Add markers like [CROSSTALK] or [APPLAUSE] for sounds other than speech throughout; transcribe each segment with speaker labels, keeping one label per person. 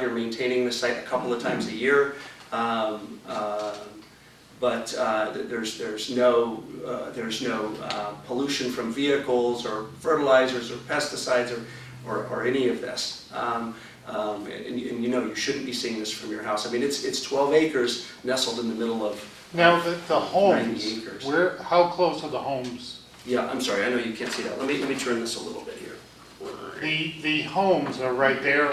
Speaker 1: You're maintaining the site a couple of times a year, um, uh, but uh, th- there's, there's no, uh, there's no uh, pollution from vehicles or fertilizers or pesticides or, or- or any of this. Um, um, And, and you know, you shouldn't be seeing this from your house. I mean, it's, it's 12 acres nestled in the middle of,
Speaker 2: Now, the,
Speaker 1: 90
Speaker 2: the homes,
Speaker 1: acres.
Speaker 2: where, how close are the homes?
Speaker 1: yeah, I'm sorry, I know you can't see that. Let me, let me turn this a little bit here.
Speaker 2: The, the homes are right
Speaker 1: [CLEARS THROAT]
Speaker 2: there,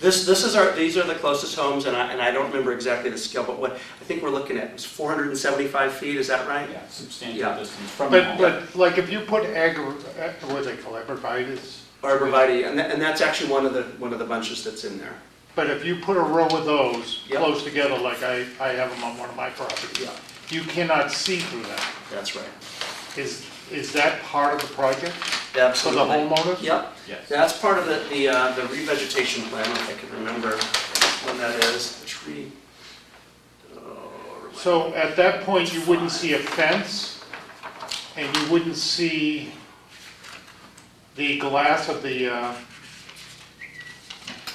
Speaker 1: This, this is our, these are the closest homes, and I, and I don't remember exactly the scale, but what, I think we're looking at is 475 feet, is that right?
Speaker 3: Yeah,
Speaker 1: Yeah.
Speaker 3: substantial distance from the
Speaker 2: but,
Speaker 3: home.
Speaker 2: but like if you put agri, eh, what they call arborvitaes,
Speaker 1: Arborvitae, and that, and that's actually one of the, one of the bunches that's in there.
Speaker 2: but if you put a row of those
Speaker 1: Yep.
Speaker 2: close together, like I, I have them on one of my properties,
Speaker 1: Yeah.
Speaker 2: you cannot see through that.
Speaker 1: That's right.
Speaker 2: Is, is that part of the project for the
Speaker 1: Absolutely.
Speaker 2: homeowners?
Speaker 1: Yep,
Speaker 3: Yes.
Speaker 1: that's part of the, the, uh, the revegetation plan, if I can remember when that is, the tree. Oh,
Speaker 2: So at that point, you wouldn't see a fence, and you wouldn't see the glass of the, uh,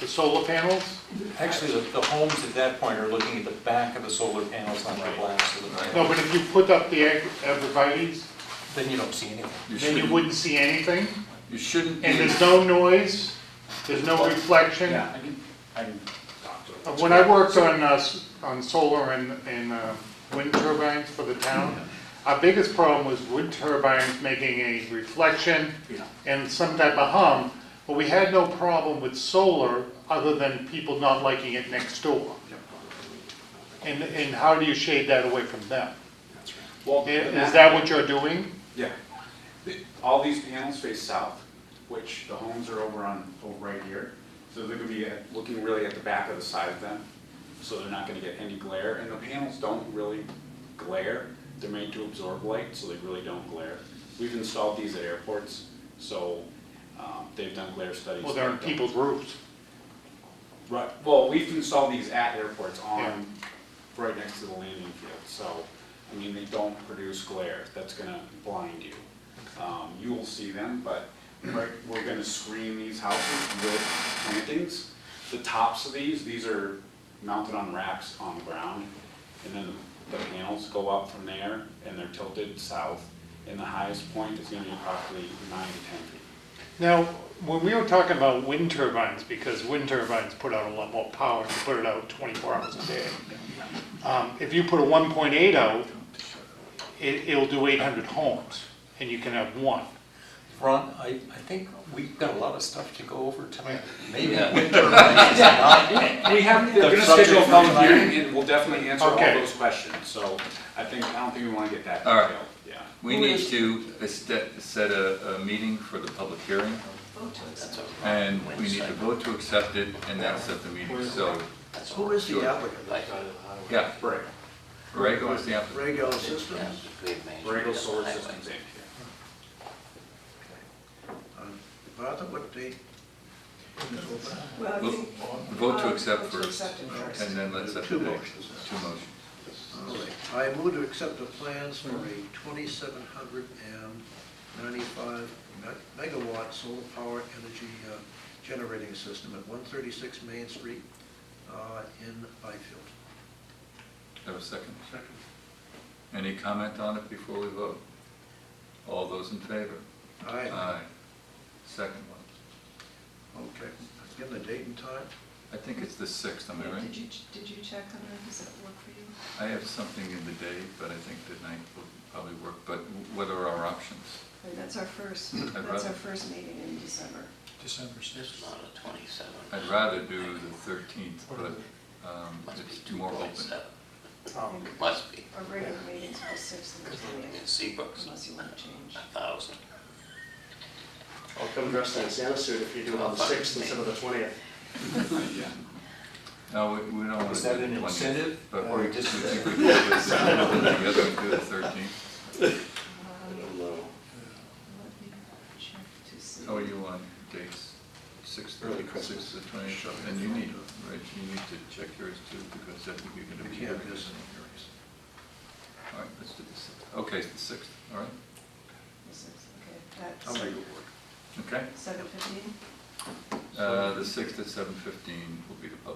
Speaker 2: the solar panels?
Speaker 4: Actually, the, the homes at that point are looking at the back of the solar panels, not the glass of the
Speaker 2: No,
Speaker 4: panel.
Speaker 2: but if you put up the ag- arborvitae's,
Speaker 4: Then you don't see anything.
Speaker 5: You
Speaker 2: then you
Speaker 5: shouldn't,
Speaker 2: wouldn't see anything,
Speaker 5: you shouldn't
Speaker 2: and
Speaker 5: be,
Speaker 2: there's no noise, there's no reflection.
Speaker 3: Yeah, I can, I can talk to
Speaker 2: Uh,
Speaker 3: it.
Speaker 2: When I worked on, uh, s- on solar and, and uh, wind turbines for the town, our biggest problem was wind turbines making a reflection
Speaker 1: Yeah.
Speaker 2: and some type of hum, but we had no problem with solar other than people not liking it next door. And, and how do you shade that away from them?
Speaker 3: Well,
Speaker 2: I- Is that what you're doing?
Speaker 3: Yeah. The- All these panels face south, which the homes are over on, over right here. So they're gonna be at- looking really at the back of the side of them, so they're not gonna get any glare. And the panels don't really glare. They're made to absorb light, so they really don't glare. We've installed these at airports, so um, they've done glare studies.
Speaker 2: Well, they're on
Speaker 3: They don't-
Speaker 2: people's roofs.
Speaker 3: Right, well, we've installed these at airports
Speaker 2: Yeah.
Speaker 3: on, right next to the landing field, so, I mean, they don't produce glare, that's gonna blind you. Um, you will see them, but right, we're gonna screen these houses with plantings. The tops of these, these are mounted on racks on the ground, and then the panels go up from there, and they're tilted south, and the highest point is gonna be approximately nine to ten feet.
Speaker 2: Now, when we were talking about wind turbines, because wind turbines put out a lot more power, you put it out twenty-four hours a day. Um, if you put a one point eight out, it, it'll do eight hundred homes, and you can have one.
Speaker 4: Ron, I, I think we've got a lot of stuff to go over tonight. Maybe
Speaker 5: Yeah.
Speaker 4: wind turbines are not
Speaker 3: We have, they're
Speaker 4: The
Speaker 3: gonna schedule a
Speaker 4: subject
Speaker 3: public
Speaker 4: matter.
Speaker 3: hearing, and we'll definitely answer all
Speaker 2: Okay.
Speaker 3: those questions, so I think, I don't think we wanna get that
Speaker 5: All right.
Speaker 3: detailed, yeah.
Speaker 5: we need to este- set a, a meeting for the public hearing, and we need to vote to accept it, and then set the meeting, so,
Speaker 6: Who is the
Speaker 5: Sure.
Speaker 6: applicant?
Speaker 5: yeah,
Speaker 3: Right.
Speaker 5: Borrego is the applicant.
Speaker 6: Rego Systems?
Speaker 3: Borrego Solar Systems Inc.
Speaker 6: Uh, Martha, what date?
Speaker 7: Well, I
Speaker 5: Well,
Speaker 7: think,
Speaker 5: Vote to accept
Speaker 7: Vote to
Speaker 5: first,
Speaker 7: accept it first.
Speaker 5: and then let's set the
Speaker 6: Two
Speaker 5: date.
Speaker 6: motions.
Speaker 5: Two motions.
Speaker 6: I move to accept the plans for a twenty-seven hundred and ninety-five megawatt solar power energy uh, generating system at one thirty-six Main Street uh, in Byfield.
Speaker 5: Have a second? Second. Any comment on it before we vote? All those in favor?
Speaker 6: Aye.
Speaker 5: Aye. Second one.
Speaker 6: Okay, give the date and time.
Speaker 5: I think it's the sixth, am I right?
Speaker 7: did you, did you check on that, does that work for you?
Speaker 5: I have something in the day, but I think the night will probably work, but what are our options?
Speaker 7: And That's our first,
Speaker 5: I'd
Speaker 7: that's our
Speaker 5: rather-
Speaker 7: first meeting in December.
Speaker 4: December sixth.
Speaker 5: I'd rather do the thirteenth, but um, it's more open.
Speaker 8: Must be,
Speaker 7: Our regular meeting's the sixth and the
Speaker 8: in
Speaker 7: twentieth,
Speaker 8: Seabrook's
Speaker 7: unless you want to change.
Speaker 8: a
Speaker 5: Uh,
Speaker 8: thousand.
Speaker 1: I'll come dressed in a Santa suit if you do it on the 6th instead of the 20th.
Speaker 3: Yeah.
Speaker 5: No, we we don't want
Speaker 4: Is
Speaker 5: to
Speaker 4: that
Speaker 5: do
Speaker 4: an
Speaker 5: the
Speaker 4: incentive?
Speaker 5: twentieth, but
Speaker 4: Or
Speaker 5: we we
Speaker 4: just-
Speaker 5: think we could do the second one together and do the thirteenth.
Speaker 7: Um, Let me check to see.
Speaker 5: How are Oh, you on dates? Sixth,
Speaker 1: Early
Speaker 5: thirty,
Speaker 1: Christmas.
Speaker 5: sixth to twentieth, and you need, Rich, you need to check yours too, because I think you're going to be
Speaker 6: We
Speaker 5: here.
Speaker 6: can't miss any
Speaker 5: All right, let's do the sixth. Okay, it's the sixth, all right,
Speaker 7: The sixth,
Speaker 6: I'll
Speaker 7: okay,
Speaker 6: make it work.
Speaker 5: okay?
Speaker 7: that's seven fifteen?
Speaker 5: Uh, The 6th at 7:15 will be the public